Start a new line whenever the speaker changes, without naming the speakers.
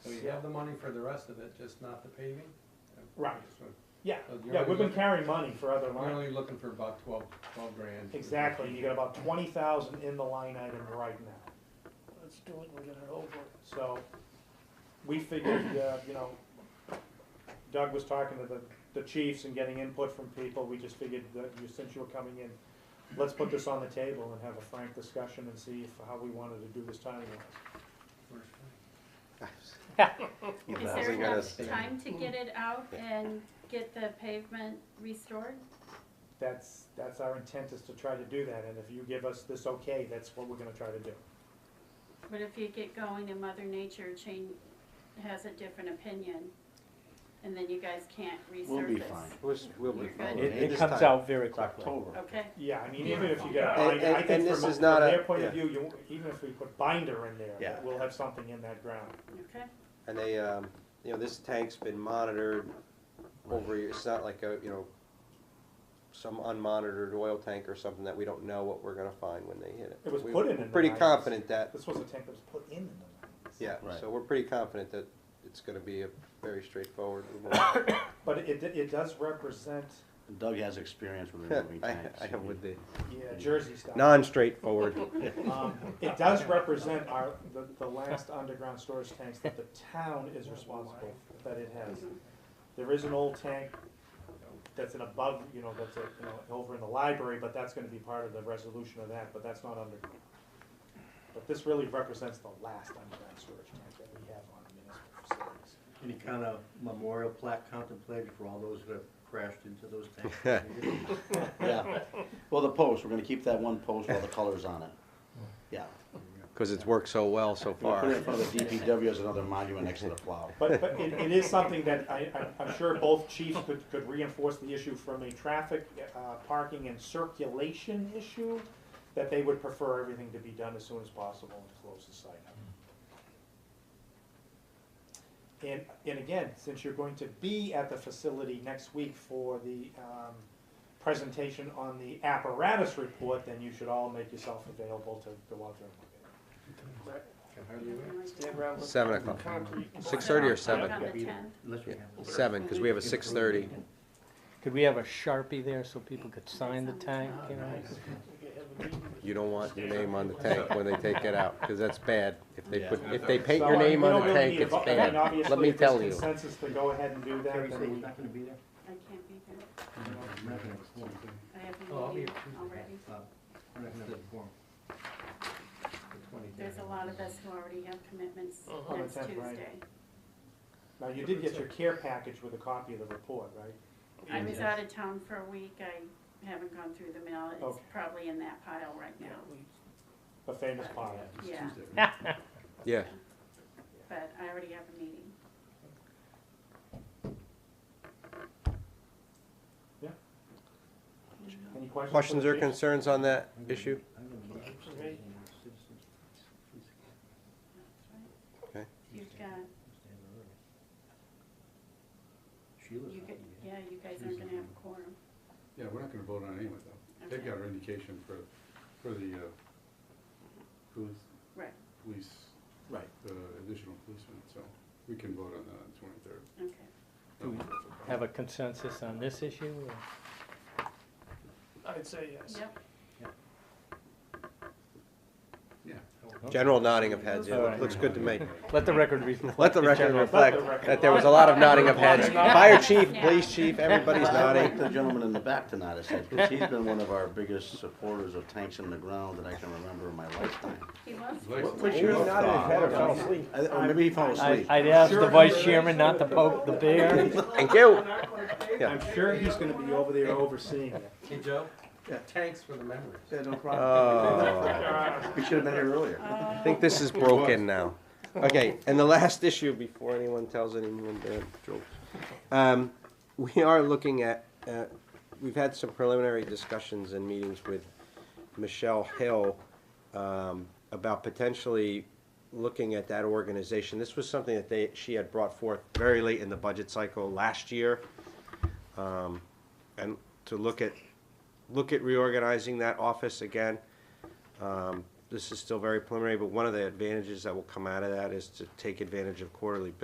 you have the money for the rest of it, just not the paving?
Right.
Just wanna-
Yeah,
So Oh, you're
yeah, we've been
only-
carrying money for other
We're
lines.
only looking for about twelve, twelve grand.
Exactly, you got about twenty thousand in the line item right now.
Let's do it and get it over.
So we figured, uh, you know, Doug was talking to the, the chiefs and getting input from people. We just figured that you, since you were coming in, let's put this on the table and have a frank discussion and see if, how we wanted to do this timing wise.
Is
Well,
there
we gotta
enough
stay-
time to get it out and get the pavement restored?
That's, that's our intent is to try to do that. And if you give us this okay, that's what we're gonna try to do.
But if you get going and Mother Nature change, has a different opinion, and then you guys can't resurface?
We'll be fine. We'll, s- we'll be
You're
fine.
good.
It,
And
it
this
comes
time,
out very quickly.
October.
Okay,
Yeah, I mean, even if you get a
And-
binder,
and-
I think
and this
from, a-
is
from
not a-
their point of
yeah.
view, you, even if we put binder in there,
Yeah.
we'll have something in that ground.
okay.
And they, um, you know, this tank's been monitored over, years. it's not like a, you know, some unmonitored oil tank or something that we don't know what we're gonna find when they hit it.
It was
We-
put in in the
Pretty
90s.
confident that,
This was a tank that was put in in the nineties.
yeah,
Right.
so we're pretty confident that it's gonna be a very straightforward. removal.
But it, it does represent,
Doug has experience with removing
I,
tanks.
I have with the
yeah, Jersey style.
non-straightforward.
Um, It does represent our, the, the last underground storage tanks that the town is responsible, that it has. There is an old tank that's an above, you know, that's a, you know, over in the library, but that's gonna be part of the resolution of that, but that's not underground. But this really represents the last underground storage tank that we have on municipal facilities.
Any kind of memorial plaque contemplated for all those that have crashed into those tanks?
Yeah. Well, the post, we're gonna keep that one post with all the colors on it. Yeah.
Cause it's worked so well so
We'll
far.
put it in front of the DPW as another monument next to the plow.
But, but it, it is something that I, I'm- I'm sure both chiefs could, could reinforce the issue from a traffic, uh, parking and circulation issue, that they would prefer everything to be done as soon as possible and to close the site up. And, and again, since you're going to be at the facility next week for the, um, presentation on the apparatus report, then you should all make yourself available to go out there and look at it.
Can hardly wait.
Stand around with
Seven o'clock,
concrete.
six thirty or seven?
On the
Yeah.
10th.
Unless we have.
Seven, cause we have a six-thirty.
Could we have a Sharpie there so people could sign the
Sounds
tank, you know?
Nice. We could have a meeting.
You don't want your name on the tank when they take it out, because that's bad. If they put, if they paint
So,
your
I mean,
name
we
on
don't
the
really
tank,
need a
it's
vote. I mean,
bad. Let
obviously,
me
if there's
tell you.
Consensus to go ahead and do that,
Terry
then
said
we-
he's not gonna be there?
I can't be there.
We're not gonna have a quorum.
I have
Oh,
a
I'll be
meeting
here Tuesday.
already.
Uh, We're not gonna have a quorum.
The 20
There's a lot of us who already have commitments
On the
next
10th, right.
Tuesday.
Now, you did get your care package with a copy of the report, right?
I was out of town for a week. I haven't gone through the mail. It's
Okay.
probably in that pile right
Yeah,
now.
we-
The famous part.
It's
Yeah.
Tuesday.
Yeah,
But I already have a meeting.
Any questions? for
questions
the
or
chief?
concerns on that issue?
I'm gonna be upstairs
Okay.
in the citizens' precinct.
Okay.
You've got,
Stand early. Sheila's
you
not
could,
gonna be here.
yeah, you guys aren't gonna have a quorum.
Yeah, we're not gonna vote on it anyway, though. They've
Okay.
got our indication for, for the, uh, police,
Right,
police,
Right.
the additional policemen, so we can vote on that on the twenty-third.
okay.
Do we Have a consensus on this issue? or-
I'd say yes.
Yep,
Yeah.
General nodding of heads,
All right.
looks good to me.
Let the record reflect.
Let the record
general-
reflect that there was a lot of nodding of heads. Fire chief, police chief, everybody's
I like
nodding.
the gentleman in the back to nod his head, because he's been one of our biggest supporters of tanks in the ground that I can remember in my lifetime.
he was.
What's
I- Or maybe he fell
I-
asleep.
I'd ask the vice chairman not to poke the bear.
Thank you. Yeah.
I'm sure he's gonna be over there overseeing it.
Hey, Joe?
Yeah.
Thanks for the memories.
Yeah, no
Oh,
We should have been here earlier.
I think this is broken now. Okay, and the last issue before anyone tells anyone bad jokes. Um, we are looking at, uh, we've had some preliminary discussions and meetings with Michelle Hill um, about potentially looking at that organization. This was something that they, she had brought forth very late in the budget cycle last year. Um, and to look at, look at reorganizing that office again. Um, This is still very preliminary, but one of the advantages that will come out of that is to take advantage of quarterly